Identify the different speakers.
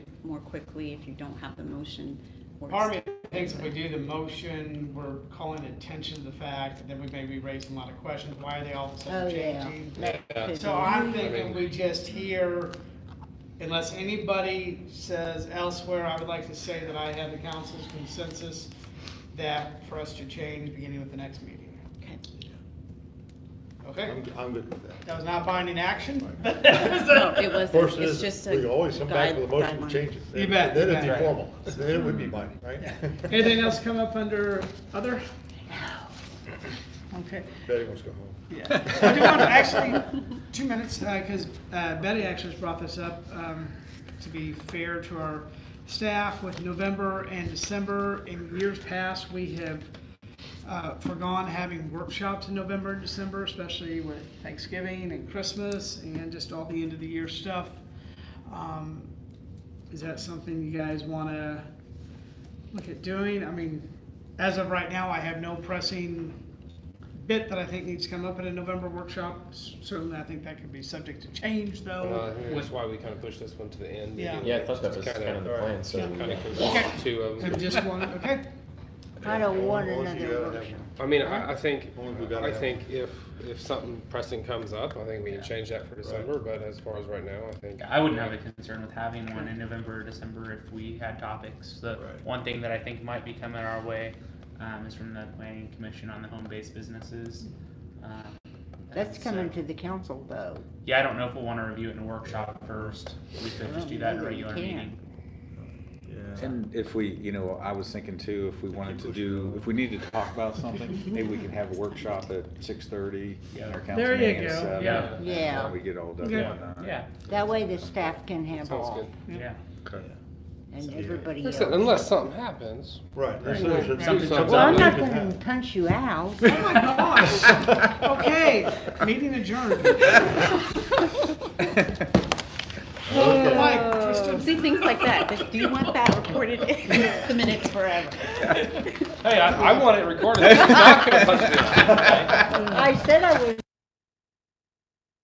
Speaker 1: more quickly if you don't have the motion. or
Speaker 2: Part of me thinks if we do the motion, we're calling attention to the fact, that then we may be raising a lot of questions, why are they all of a
Speaker 3: Oh,
Speaker 2: sudden
Speaker 3: yeah.
Speaker 2: changing?
Speaker 1: Yeah.
Speaker 2: So I'm thinking we just hear, unless anybody says elsewhere, I would like to say that I have the council's consensus that for us to change beginning with the next meeting,
Speaker 1: Okay.
Speaker 2: okay?
Speaker 4: I'm, I'm good with that.
Speaker 2: That was not binding action?
Speaker 1: No, it
Speaker 4: Of course,
Speaker 1: wasn't,
Speaker 4: it
Speaker 1: it's
Speaker 4: is,
Speaker 1: just a.
Speaker 4: we always come back with a motion to
Speaker 1: guideline.
Speaker 4: change it.
Speaker 2: You bet,
Speaker 4: Then
Speaker 2: you
Speaker 4: it'd be
Speaker 2: bet.
Speaker 4: formal, then it would be binding, right?
Speaker 2: Anything else come up under other? Okay.
Speaker 4: Betty wants to go home.
Speaker 2: Yeah. I do want to actually, two minutes, because Betty actually just brought this up, um, to be fair to our staff, with November and December, in years past, we have uh, forgone having workshops in November and December, especially with Thanksgiving and Christmas, and just all the end of the year stuff. Um, Is that something you guys want to look at doing? I mean, as of right now, I have no pressing bit that I think needs to come up at a November workshop. S- Certainly, I think that could be subject to change,
Speaker 5: Uh,
Speaker 2: though.
Speaker 5: That's why we kind of pushed this one to the end.
Speaker 2: Yeah.
Speaker 6: Yeah, I thought that was kind of the plan, so.
Speaker 5: Kind of
Speaker 2: Okay.
Speaker 5: combine the two of
Speaker 2: I
Speaker 5: them.
Speaker 2: just want, okay,
Speaker 3: I don't want
Speaker 4: Well, you
Speaker 3: another
Speaker 4: gotta have-
Speaker 3: workshop.
Speaker 5: I mean, I, I think,
Speaker 4: Only we gotta
Speaker 5: I
Speaker 4: have-
Speaker 5: think if, if something pressing comes up, I think we can change that for December, but as far as right now, I think.
Speaker 7: I wouldn't have a concern with having one in November or December if we had topics. The
Speaker 4: Right.
Speaker 7: one thing that I think might be coming our way um, is from the planning commission on the home-based businesses. Um,
Speaker 3: That's
Speaker 7: so-
Speaker 3: coming to the council though.
Speaker 7: Yeah, I don't know if we'll want to review it in a workshop first. We could just do that in a
Speaker 3: Well,
Speaker 7: regular
Speaker 3: maybe we
Speaker 7: meeting.
Speaker 8: And if we, you know, I was thinking too, if we wanted to do, if we needed to talk about something, maybe we can have a workshop at six thirty.
Speaker 2: There you go,
Speaker 7: yeah.
Speaker 3: Yeah.
Speaker 8: We get all done
Speaker 2: Yeah.
Speaker 8: on that.
Speaker 7: Yeah,
Speaker 3: That way the staff can have
Speaker 5: Sounds
Speaker 3: off
Speaker 5: good.
Speaker 7: yeah.
Speaker 4: Okay.
Speaker 3: and
Speaker 4: Yeah.
Speaker 3: everybody else.
Speaker 5: Listen, Unless something happens.
Speaker 4: Right. that's- that's- that's-
Speaker 5: Something-
Speaker 3: Well, I'm not
Speaker 5: something-
Speaker 3: gonna punch you out.
Speaker 2: Oh okay, meeting adjourned.
Speaker 4: Okay.
Speaker 2: Mike, Kristen,
Speaker 1: See, things like that, Just, do you want that recorded in the minutes forever?
Speaker 5: Hey, I, I want it recorded. I'm not gonna punch this.
Speaker 3: I said I was